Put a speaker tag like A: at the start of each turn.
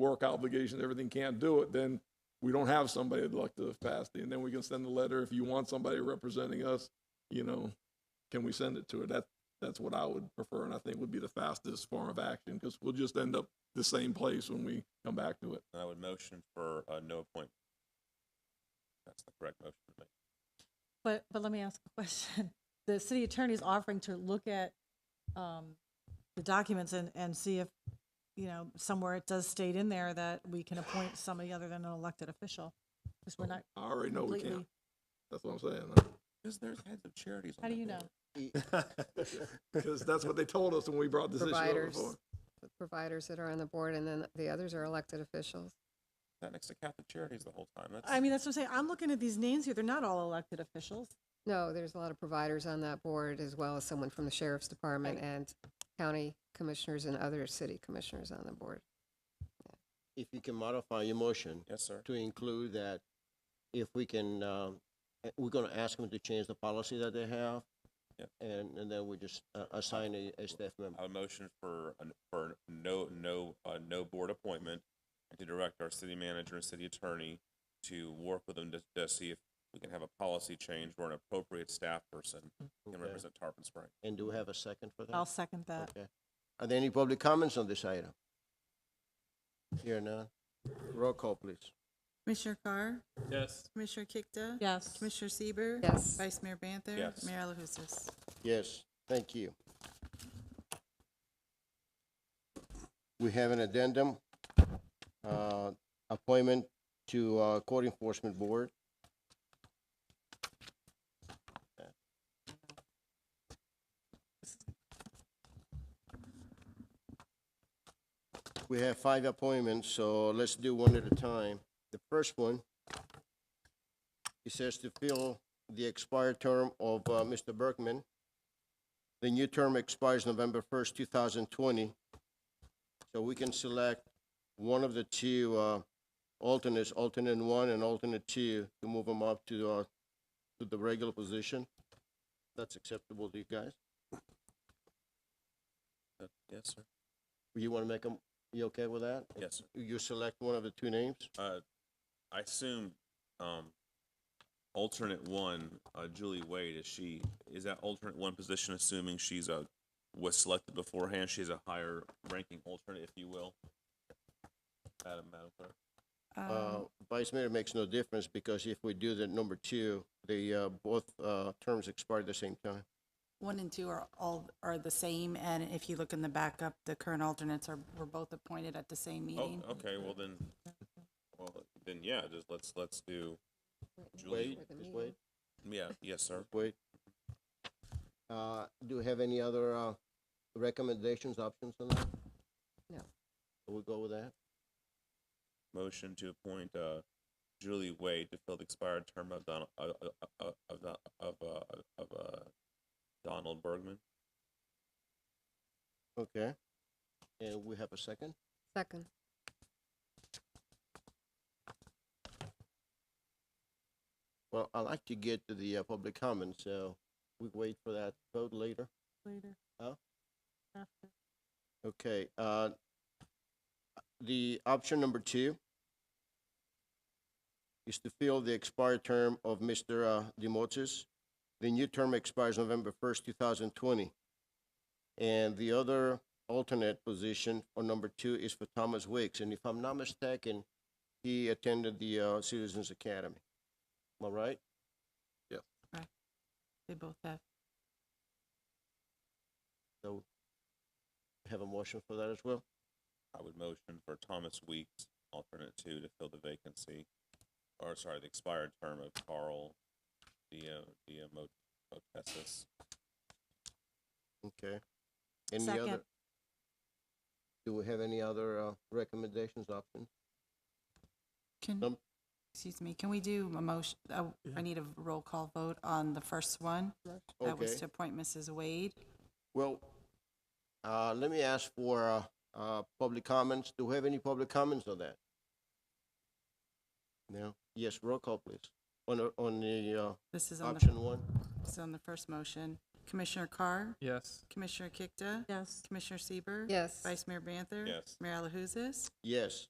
A: work obligations, everything can't do it, then we don't have somebody at elected capacity. And then we can send a letter, if you want somebody representing us, you know, can we send it to her? That, that's what I would prefer and I think would be the fastest form of action because we'll just end up the same place when we come back to it.
B: I would motion for uh, no appointment. That's the correct motion to make.
C: But, but let me ask a question. The city attorney is offering to look at um, the documents and, and see if, you know, somewhere it does state in there that we can appoint somebody other than an elected official. Because we're not
A: I already know we
C: completely,
A: can't. That's what I'm saying.
B: Because there's heads of charities on
C: how do you know?
A: Because that's what they told us when we brought this issue up
D: Providers.
A: before.
D: the providers that are on the board, and then the others are elected officials.
B: That next to Catholic Charities the whole time. That's,
C: I mean, that's what I'm saying. I'm looking at these names here. They're not all elected officials.
D: No, there's a lot of providers on that board, as well as someone from the sheriff's department
C: Right.
D: and county commissioners and other city commissioners on the board.
E: if you can modify your motion
B: yes, sir.
E: to include that if we can, um, eh, we're gonna ask them to change the policy that they have.
B: Yeah.
E: And, and then we just uh, assign a, a staff member.
B: I would motion for an, for no no uh, no board appointment and to direct our city manager and city attorney to work with them to, to see if we can have a policy change or an appropriate staff person can
E: Okay.
B: represent Tarpon Springs.
E: And do we have a second for that?
C: I'll second that.
E: Okay. Are there any public comments on this item? Here none. Roll call, please.
F: Commissioner Carr? Yes. Commissioner Kikta?
C: Yes.
F: Commissioner Sieber,
D: Yes.
F: Vice Mayor Banther?
B: Yes.
F: Mayor Alahouzes?
E: Yes, thank you. We have an addendum, uh, appointment to, uh, Code Enforcement Board. We have five appointments, so let's do one at a time. The first one, it says to fill the expired term of, uh, Mr. Berkman. The new term expires November first, two thousand twenty. So we can select one of the two, uh, alternates, alternate one and alternate two, to move them up to, uh, to the regular position. That's acceptable to you guys?
B: Uh, yes, sir.
E: You wanna make them, you okay with that?
B: Yes, sir.
E: You select one of the two names?
B: Uh, I assume, um, alternate one, uh, Julie Wade, is she, is that alternate one position assuming she's a, was selected beforehand, she's a higher ranking alternate, if you will? Madam, Madam Clerk,
F: Um.
E: Uh, Vice Mayor makes no difference because if we do the number two, they, uh, both, uh, terms expire at the same time.
F: One and two are all, are the same, and if you look in the backup, the current alternates are, were both appointed at the same meeting.
B: oh, okay, well then, well, then, yeah, just let's, let's do, Julie-
E: Wait,
D: With the
E: just
D: meeting.
E: wait,
B: yeah, yes, sir.
E: wait. Uh, do you have any other, uh, recommendations, options on that?
D: No.
E: We'll go with that.
B: Motion to appoint, uh, Julie Wade to fill the expired term of Donald, of, of, of, Don- of, uh, of, uh, Donald Bergman.
E: Okay. And we have a second?
D: Second,
E: Well, i like to get to the, uh, public comment, so we wait for that vote later.
C: Later.
E: Huh?
C: After.
E: Okay, uh, the option number two is to fill the expired term of Mr. uh, Demotis. The new term expires November first, two thousand twenty. And the other alternate position on number two is for Thomas Wicks, and if I'm not mistaken, he attended the, uh, Citizens Academy. Am I right?
F: They both have.
E: So have a motion for that as well?
B: I would motion for Thomas Weeks, alternate two, to fill the vacancy, or sorry, the expired term of Carl Dia, Dia Motessis.
E: Okay. Any other-
C: Second.
E: Do we have any other, uh, recommendations, options?
F: Can,
E: Um,
F: excuse me, can we do a motion, uh, I need a roll call vote on the first one? That was
E: Okay.
F: to appoint Mrs. Wade.
E: Well, uh, let me ask for, uh, uh, public comments. Do we have any public comments on that? No? Yes, roll call, please. On, the- on the, uh,
F: This is on the,
E: option one?
F: this is on the first motion. Commissioner Carr?
G: Yes.
F: Commissioner Kikta?
C: Yes.
F: Commissioner Sieber,
D: yes.
F: Vice Mayor Banther?
B: Yes.
F: Mayor Alahouzes?
E: Yes.